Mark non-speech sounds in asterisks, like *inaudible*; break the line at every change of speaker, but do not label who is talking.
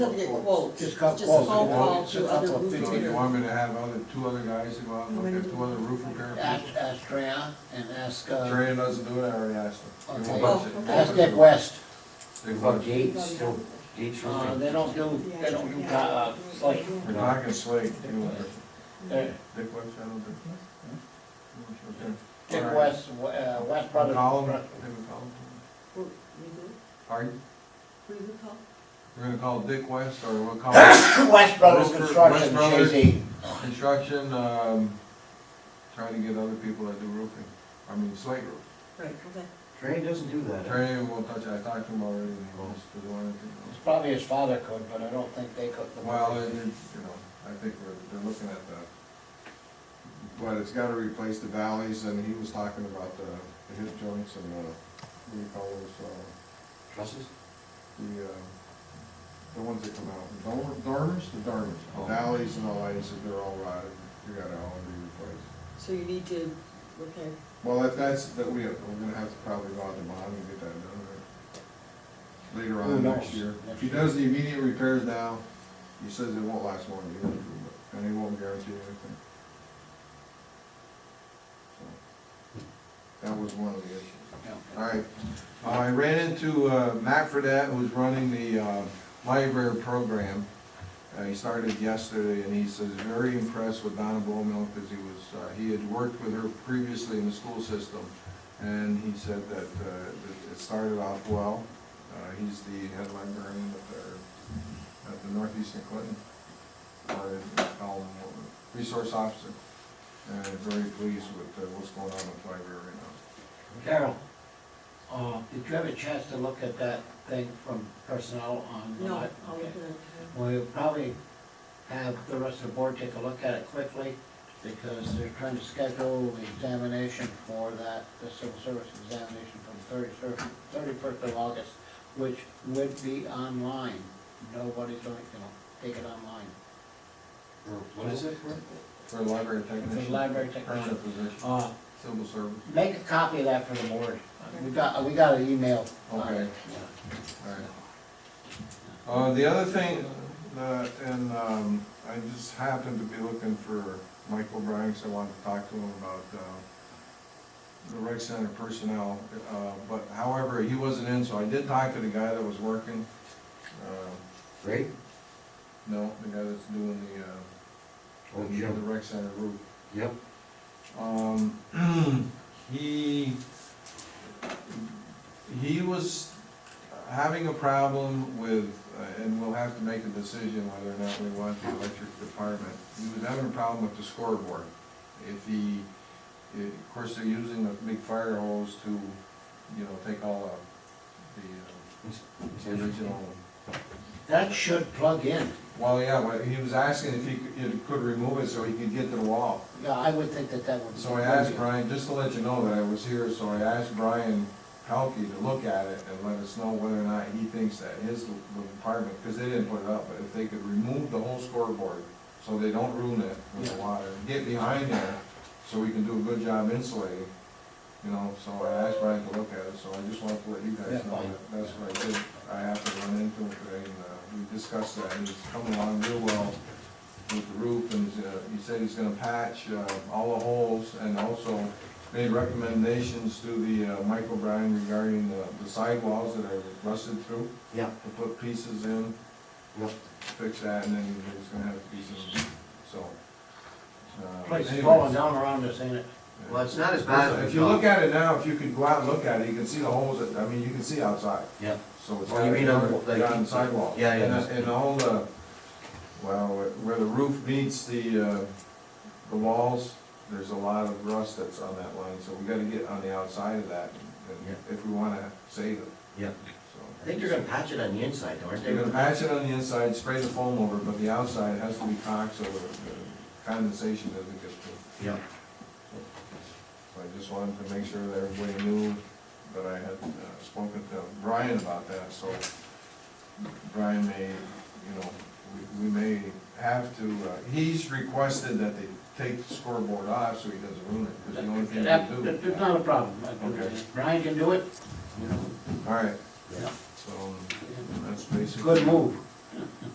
He'll get quotes, just
Just
phone
got quotes, you know,
call
it's
to other
a couple of
roofers.
things.
So you want me to have other, two other guys to go out and look at two other roof repair
Ask,
people?
ask Treya and ask, uh,
Trey doesn't do it, I already asked him. They
Okay.
won't budget.
ask Dick West.
They
About
budget.
Oh, gates, still, gates
Uh,
roofing.
they don't do, they don't do, uh, like,
We're not gonna slay, you know, Dick
they're-
West, I don't think.
Dick West, uh, West Brothers.
Call him, They would call him.
Who- who-
Pardon?
who you call?
We're gonna call Dick West, or we'll call
West Brothers
West
Construction,
Brothers.
Jay-Z.
construction, um, trying to get other people that do roofing, I mean, slate roof.
Right, okay.
Train doesn't do that. huh?
Trey won't touch, it. I talked to him already, and he wants to do anything else.
It's probably his father could, but I don't think they could.
Well, it- it's, you know, I think we're, they're looking at the, but it's gotta replace the valleys, and he was talking about the, the hip joints and, uh, what do you call those, uh,
Trusses?
the, uh, the ones that come out, the dormer- dormers, the dormers, the
Oh.
valleys and all that, he said they're all rotted, you gotta all be replaced.
So you need to, okay,
Well, if that's, that we, we're gonna have to probably go out to bond and get that done, right? Later
Who
on next
knows?
year. If he does the immediate repairs now, he says it won't last more than a year, or two, but- and he won't guarantee anything. So, That was one of the issues. All right, Uh, I ran into uh, Matt Fredette, who's running the uh, library program. Uh, He started yesterday, and he says very impressed with Donna Bowman, because he was, uh, he had worked with her previously in the school system, and he said that uh, that it started off well. Uh, He's the head librarian at the, at the Northeastern Clinton, or they call him, uh, resource officer, and very pleased with uh, what's going on with the library right now.
Carol, uh, did you have a chance to look at that thing from personnel on? the
no,
li-
I'll
okay.
look at it.
We'll probably have the rest of the board take a look at it quickly, because they're trying to schedule the examination for that, the civil service examination from thirty-first, thirty-first of August, which would be online. Nobody's going, to take it online.
Or what is it?
For a library technician.
For a library technician.
Permanent position,
Uh,
civil service,
make a copy of that for the board. We got, we got an email. on it.
Okay. all right. Uh, the other thing, uh, and, um, I just happened to be looking for Michael Bryan, so I wanted to talk to him about, uh, the rec center personnel, uh, but however, he wasn't in, so I did talk to the guy that was working, uh,
Great.
no, the guy that's doing the, uh,
Oh,
the
Jim.
rec center roof.
Yep.
Um, *clears throat* he, he was having a problem with, uh, and we'll have to make a decision whether or not we want the electric department. He was having a problem with the scoreboard. If he, i- of course, they're using a big fire hose to, you know, take all of the, uh, the original.
That should plug in.
Well, yeah, but he was asking if he could, he could remove it so he could get to the wall.
Yeah, I would think that that would.
So I asked Brian, just to let you know that I was here, so I asked Brian Pelkey to look at it and let us know whether or not he thinks that his little apartment, because they didn't put it up, but if they could remove the whole scoreboard, so they don't ruin it with the water, get behind there, so we can do a good job insulating, you know, so I asked Brian to look at it, so I just wanted to let you guys
Yeah,
know
fine.
that that's what I did. I happened to run into him today, and, uh, we discussed that, and he's coming along real well with the roof, and uh, he said he's gonna patch uh, all the holes, and also made recommendations to the uh, Michael Bryan regarding the the sidewalls that are rusted through,
Yeah,
to put pieces in,
yeah.
fix that, and then he's gonna have pieces, so. uh,
Place is
anyways,
falling down around us, ain't it?
yeah.
Well, it's not as bad. as
If you look at it now, if you could go out and look at it, you can see the holes, that- I mean, you can see outside.
Yeah.
So it's
Oh,
on
you mean on the-
the,
like-
on the sidewalk.
Yeah, yeah.
And- And all the, uh, well, where the roof meets the, uh, the walls, there's a lot of rust that's on that line, so we gotta get on the outside of that, and- and if we wanna save it,
Yeah. I
so.
think they're gonna patch it on the inside, though, aren't they?
You're gonna patch it on the inside, spray the foam over, it, but the outside has to be caulked so the the condensation doesn't get through.
Yeah.
So I just wanted to make sure that everybody knew that I had uh, spoken to Brian about that, so Brian may, you know, we, we may have to, uh, he's requested that they take the scoreboard off so he doesn't ruin it, because the only thing
That-
we
that-
do.
That's not a problem.
Okay.
Brian can do it, you know,
All right,
yeah,
so that's basically.
good move.